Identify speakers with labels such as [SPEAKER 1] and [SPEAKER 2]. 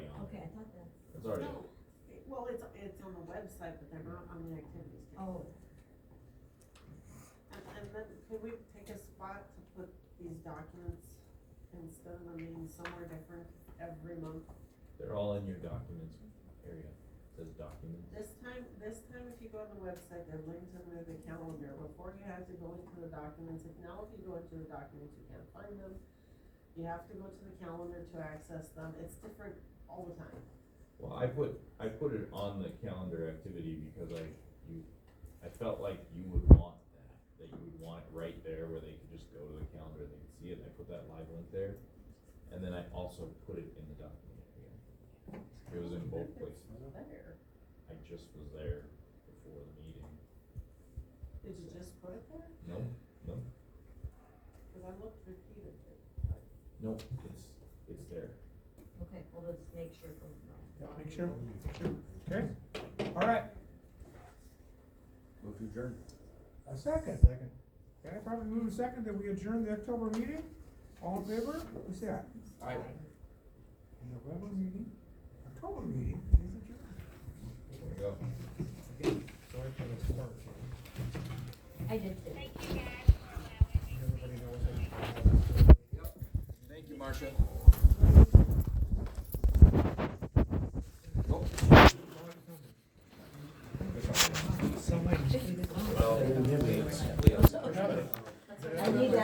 [SPEAKER 1] It's already,
[SPEAKER 2] No, it- well, it's, it's on the website, but they're not on the activities
[SPEAKER 3] Oh,
[SPEAKER 2] table. And, and then, could we take a spot to put these documents instead of them being somewhere different every month?
[SPEAKER 1] they're all in your documents area, It says documents.
[SPEAKER 2] This time, this time, if you go on the website, they're linked under the calendar, before you have to go into the documents, if now if you go into the documents, you can't find them. You have to go to the calendar to access them, it's different all the time.
[SPEAKER 1] Well, I put, I put it on the calendar activity because I, you, I felt like you would want that, that you would want it right there where they could just go to the calendar, they could see it, and I put that live link there. And then I also put it in the document area. It was in both places,
[SPEAKER 2] It's There,
[SPEAKER 1] I just was there before the meeting,
[SPEAKER 2] did you just put it there?
[SPEAKER 1] no, no,
[SPEAKER 2] Cause I looked repeatedly.
[SPEAKER 1] no, it's, it's there.
[SPEAKER 3] okay, well, let's make sure from
[SPEAKER 4] Make sure, okay, all right,
[SPEAKER 5] Move to adjourn.
[SPEAKER 4] a second. Second. Okay, probably move a second that we adjourn the October meeting, all in favor, we say aye.
[SPEAKER 5] Aye.
[SPEAKER 4] November meeting, October meeting, is adjourned.
[SPEAKER 1] There we go.
[SPEAKER 4] Sorry for the start.
[SPEAKER 3] I did too.